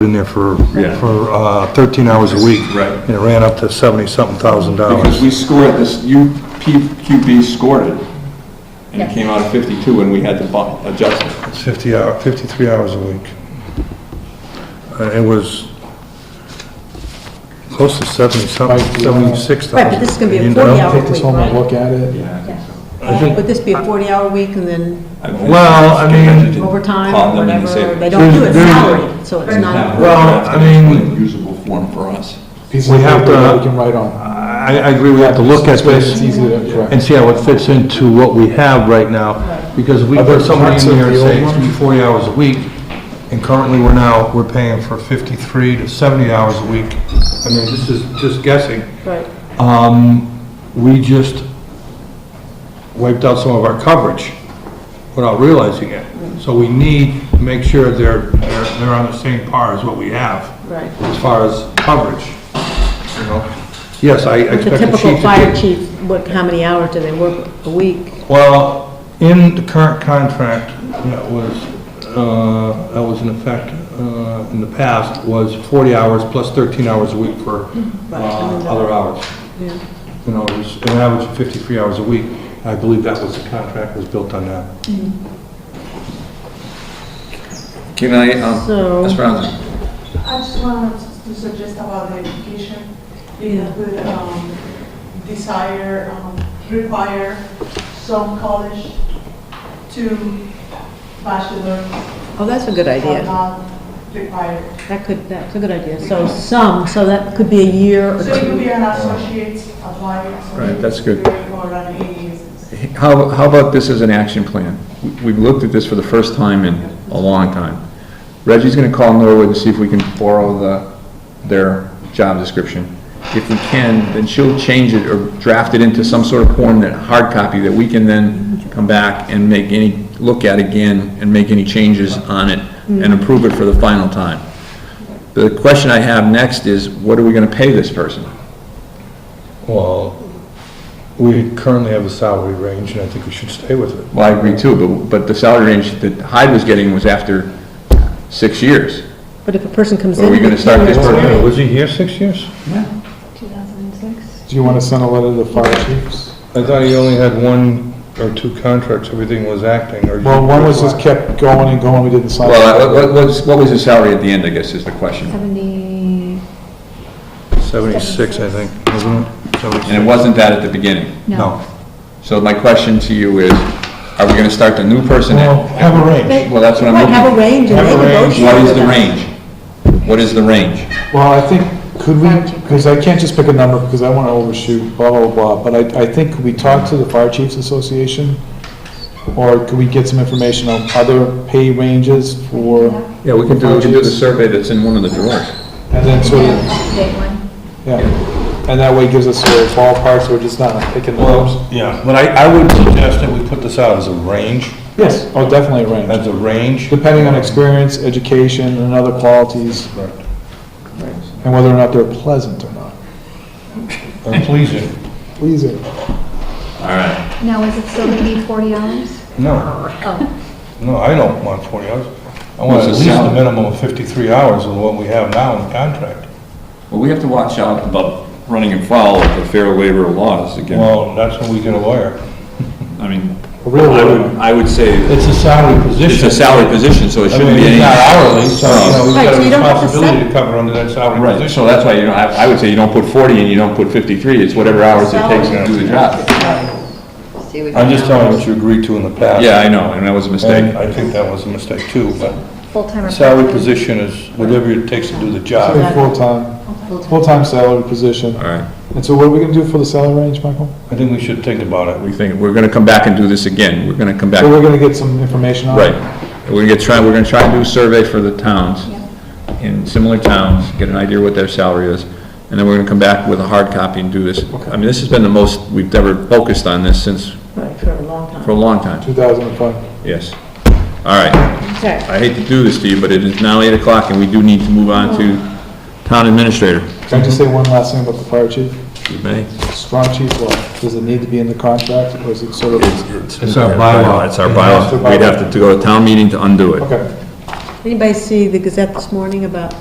in there for, Yeah. for uh, 13 hours a week. Right. And it ran up to 70-something thousand Because dollars. we scored this, UPQB scored it, and it Yeah. came out at 52, and we had to bu- adjust it. It's 50 hour, 53 hours a week. Uh, It was close to 70-something, 76,000. Right, but this is gonna be a You know? 40 hour Take this home and look at it. Yeah, I think so. Would this be a 40-hour week and then I think Well, I it's convenient mean- to overtime call or them and whatever? say, They don't do it There's- salary, so it's not, Well, I mean- Usable form for us. Pieces of We have paper that to- We can write on. uh, I, I agree, we have to look at It's this easy to correct. and see how it fits into what we have right now. Because if we put somebody in there and say it's gonna be 40 hours a week, and currently we're now, we're paying for 53 to 70 hours a week. I mean, this is just guessing. right, Um, we just wiped out some of our coverage without realizing it. So we need to make sure they're, they're, they're on the same par as what we have right. as far as coverage, you know? Yes, I With the expect the typical chief fire to chief, what, how many hours do they work a week? do. Well, in the current contract that was, uh, that was in effect, uh, in the past, was forty hours plus thirteen hours a week for, uh, other hours. You know, it was an average of fifty-three hours a week. I believe that was, the contract was built on that. Can I, um, So, Ms. Brownson, I just wanted to suggest about the education, because the um, desire, um, require some college to bachelor oh, that's a good are idea. not required. That could, that's a good idea. So some, so that could be a year or So it could two. be an associate, apply associate. Right, that's good. degree Or an AES. how, how about this as an action plan? We- We've looked at this for the first time in a long time. Reggie's gonna call Norwood and see if we can borrow the, their job description. If we can, then she'll change it or draft it into some sort of form that, hard copy, that we can then come back and make any, look at again and make any changes on it and approve it for the final time. The question I have next is, what are we gonna pay this person? Well, we currently have a salary range, and I think we should stay with it. Well, I agree too, but, but the salary range that Hyde was getting was after six years. But if a person comes in. Are we gonna with start this years- person- Was he here six years? Do you want to send a letter to the fire chiefs? Mm-hmm. I thought he only had one or two contracts, everything was acting, or... Well, one was just kept going and going, we didn't sign. Well, uh, what, what was, what was his salary at the end, I guess, is the question. 70, 76, I think, wasn't it? And it wasn't that at the beginning. No. no. So my question to you is, are we gonna start the new person Well, at? have a range. Well, that's what I'm Right, have a looking range and they Have a range. for. What negotiate. is the with us. range? What is the range? Well, I think, could we, because I can't just pick a number because I want to overshoot, blah, blah, blah. But I, I think, could we talk to the Fire Chiefs Association? Or could we get some information on other pay ranges for, Yeah, we can do, we can do the survey that's in one of the drawers. and then sort of, Update one. yeah. And that way it gives us sort of ballparks, so we're just not picking numbers. Yeah, but I, I would suggest that we put this out as a range, Yes, oh, definitely a range. as a range. depending on experience, education, and other qualities, Right. and whether or not they're pleasant or not. And pleasing. Pleasing. All right. Now, is it still going to be 40 hours? No, Oh, no, I don't want 40 hours. I want at What's least the a salary? minimum of 53 hours of what we have now in the contract. Well, we have to watch out about running afoul of the fair labor laws again. Well, that's when we get a lawyer. I mean, A real I would, lawyer. I would say It's a salary It's position. a salary position, so it I shouldn't mean, be it's any... not hourly, so, you know, we've Right, got so a you don't have to responsibility set- to cover under that salary Right, position. so that's why you don't have, I would say you don't put 40 and you don't put 53, it's whatever hours it takes to do the job. I'm just telling you what you agreed to in the past. Yeah, I know, and that was a And mistake. I think that was a mistake too, but full-time or salary part-time? position is whatever it takes to do the Say job. Full-time, full-time salary position. All right, And so what are we gonna do for the salary range, Michael? I think we should think about it. we think, we're gonna come back and do this again, we're gonna come back, So we're gonna get some information on it? right. We're gonna get, try, we're gonna try and do a survey for the towns, in similar towns, get an idea what their salary is, and then we're gonna come back with a hard copy and do this. I mean, this has been the most we've ever focused on this since, Right, for a long for a time. long time, 2005. yes. All right. Okay. I hate to do this to you, but it is now eight o'clock and we do need to move on to town administrator. Can I just say one last thing about the fire chief? You may. Strong chief law, does it need to be in the contract, or is it sort of, It's our bylaw. It's our It's our bylaw. bylaw. We'd have to go to town meeting to undo it. okay. Anybody see the Gazette this morning about